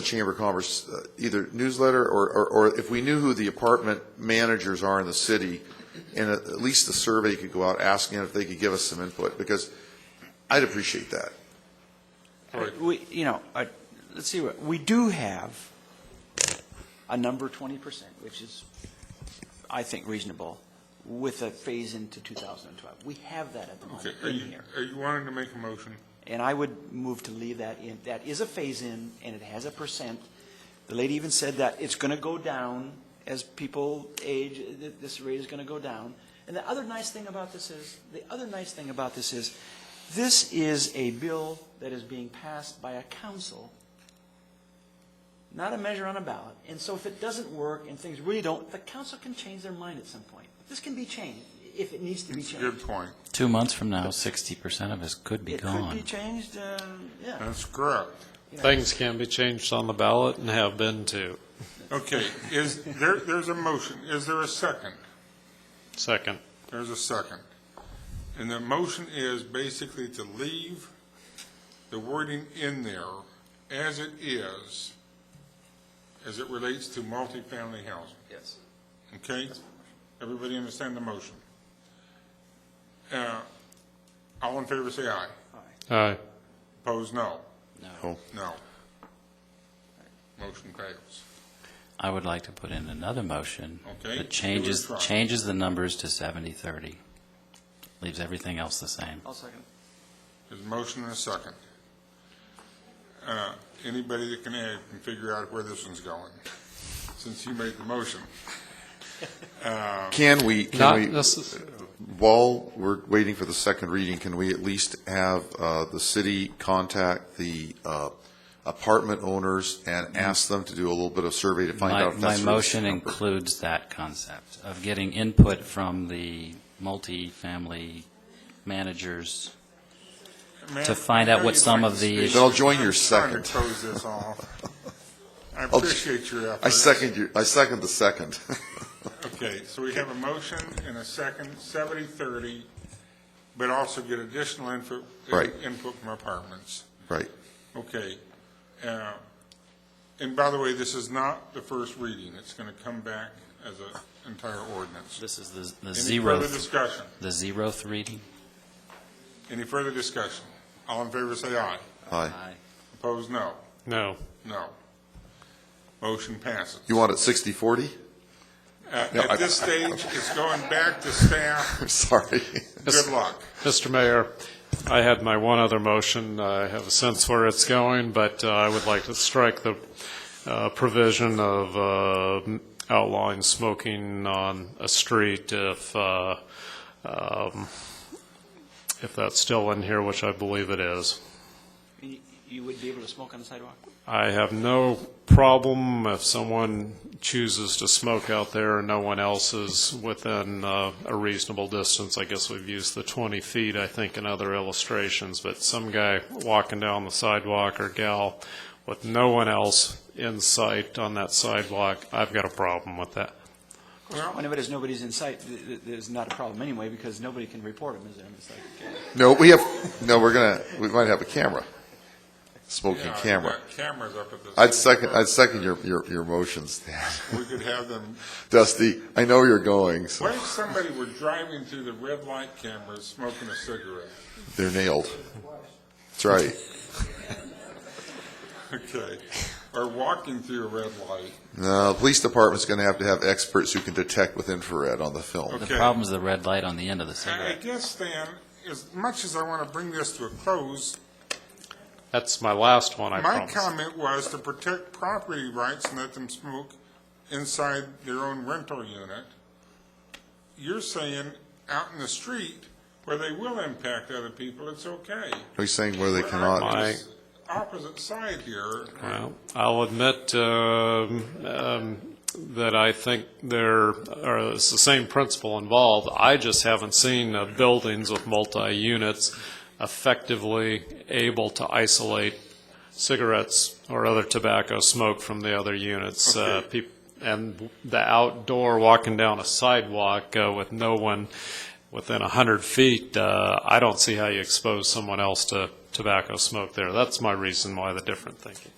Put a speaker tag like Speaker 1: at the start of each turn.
Speaker 1: the Chamber of Commerce, uh, either newsletter, or, or- or if we knew who the apartment managers are in the city, and at at least the survey could go out asking if they could give us some input, because I'd appreciate that.
Speaker 2: We, you know, uh, let's see, what we do have a number 20%, which is, I think, reasonable, with a phase into 2012. We have that at the
Speaker 3: Okay,
Speaker 2: moment
Speaker 3: are
Speaker 2: in
Speaker 3: you,
Speaker 2: here.
Speaker 3: are you wanting to make a motion?
Speaker 2: And I would move to leave that in. That is a phase-in, and it has a percent. The lady even said that it's going to go down as people age, th- this rate is going to go down. And the other nice thing about this is, the other nice thing about this is, this is a bill that is being passed by a council, not a measure on a ballot. And so if it doesn't work and things really don't, the council can change their mind at some point. This can be changed, if it needs to be
Speaker 3: It's a
Speaker 2: changed.
Speaker 3: good point.
Speaker 4: Two months from now, sixty percent of us could be
Speaker 2: It could be
Speaker 4: gone.
Speaker 2: changed, um, yeah.
Speaker 3: That's correct.
Speaker 5: Things can be changed on the ballot and have been too.
Speaker 3: Okay, is, there, there's a motion. Is there a second?
Speaker 5: Second,
Speaker 3: There's a second. And the motion is basically to leave the wording in there as it is, as it relates to multifamily housing.
Speaker 2: Yes.
Speaker 3: Okay? Everybody understand the motion? Uh, All in favor, say aye.
Speaker 5: aye.
Speaker 3: Opposed, no.
Speaker 1: No.
Speaker 3: No. Motion fails.
Speaker 4: I would like to put in another motion.
Speaker 3: Okay, give it a
Speaker 4: That changes,
Speaker 3: try.
Speaker 4: changes the numbers to seventy, thirty. Leaves everything else the same.
Speaker 2: I'll second.
Speaker 3: There's a motion and a second. Uh, Anybody that can add can figure out where this one's going, since you made the motion.
Speaker 1: Can we,
Speaker 5: Not
Speaker 1: can we,
Speaker 5: necess-
Speaker 1: while we're waiting for the second reading, can we at least have uh, the city contact the uh, apartment owners and ask them to do a little bit of survey to find
Speaker 4: My-
Speaker 1: out if that's...
Speaker 4: My
Speaker 1: the
Speaker 4: motion
Speaker 1: number?
Speaker 4: includes that concept of getting input from the multifamily managers.
Speaker 3: Ma'am,
Speaker 4: To find
Speaker 3: I
Speaker 4: out
Speaker 3: know
Speaker 4: what
Speaker 3: you'd
Speaker 4: some
Speaker 3: like
Speaker 4: of
Speaker 3: to
Speaker 4: the-
Speaker 3: speak.
Speaker 1: Then I'll join your
Speaker 3: I'm
Speaker 1: second.
Speaker 3: trying to close this off. I appreciate your efforts.
Speaker 1: I second your, I second the second.
Speaker 3: Okay, so we have a motion and a second, 70-30, but also get additional input,
Speaker 1: Right.
Speaker 3: input from apartments.
Speaker 1: Right.
Speaker 3: Okay. Uh, And by the way, this is not the first reading. It's going to come back as an entire ordinance.
Speaker 4: This is the, the
Speaker 3: Any
Speaker 4: zeroth,
Speaker 3: further discussion?
Speaker 4: the zeroth reading.
Speaker 3: Any further discussion? All in favor, say aye.
Speaker 1: Aye.
Speaker 3: Opposed, no.
Speaker 5: no.
Speaker 3: No. Motion passes.
Speaker 1: You want it 60/40?
Speaker 3: Uh, At this stage, it's going back to staff.
Speaker 1: I'm sorry.
Speaker 3: Good luck.
Speaker 5: Mr. Mayor, I had my one other motion. I have a sense where it's going, but uh, I would like to strike the uh, provision of uh, outlawing smoking on a street if, uh, um, if that's still in here, which I believe it is.
Speaker 2: You you would be able to smoke on the sidewalk?
Speaker 5: I have no problem if someone chooses to smoke out there and no one else is within uh, a reasonable distance. I guess we've used the 20 feet, I think, in other illustrations, but some guy walking down the sidewalk or gal with no one else in sight on that sidewalk, I've got a problem with that.
Speaker 3: Well,
Speaker 2: Whenever there's nobody's in sight, th- th- there's not a problem anyway, because nobody can report them, is there? It's like,
Speaker 1: No, we have, no, we're gonna, we might have a camera, smoking
Speaker 3: yeah, I've
Speaker 1: camera.
Speaker 3: got Cameras up at the.
Speaker 1: I'd second, I'd second your, your, your motions, Dan.
Speaker 3: We could have them
Speaker 1: Dusty, I know you're going, so
Speaker 3: What if somebody were driving through the red light cameras smoking a cigarette?
Speaker 1: they're nailed. That's right.
Speaker 3: Okay. Or walking through a red light?
Speaker 1: No, the police department's gonna have to have experts who can detect with infrared on the film.
Speaker 4: The
Speaker 3: Okay.
Speaker 4: problem's the red light on the end of the
Speaker 3: I I
Speaker 4: cigarette.
Speaker 3: guess, Stan, as much as I want to bring this to a close,
Speaker 5: That's my last one, I
Speaker 3: my
Speaker 5: promise.
Speaker 3: comment was to protect property rights and let them smoke inside their own rental unit. You're saying out in the street where they will impact other people, it's okay.
Speaker 1: Are you saying where they
Speaker 3: We're
Speaker 1: cannot?
Speaker 5: My-
Speaker 3: on this Opposite side here.
Speaker 5: Well, I'll admit um, um, that I think there are, it's the same principle involved. I just haven't seen uh, buildings with multi-units effectively able to isolate cigarettes or other tobacco smoke from the other units. Uh,
Speaker 3: Okay.
Speaker 5: peop- And the outdoor, walking down a sidewalk uh, with no one within 100 feet, uh, I don't see how you expose someone else to tobacco smoke there. That's my reason why the different thinking.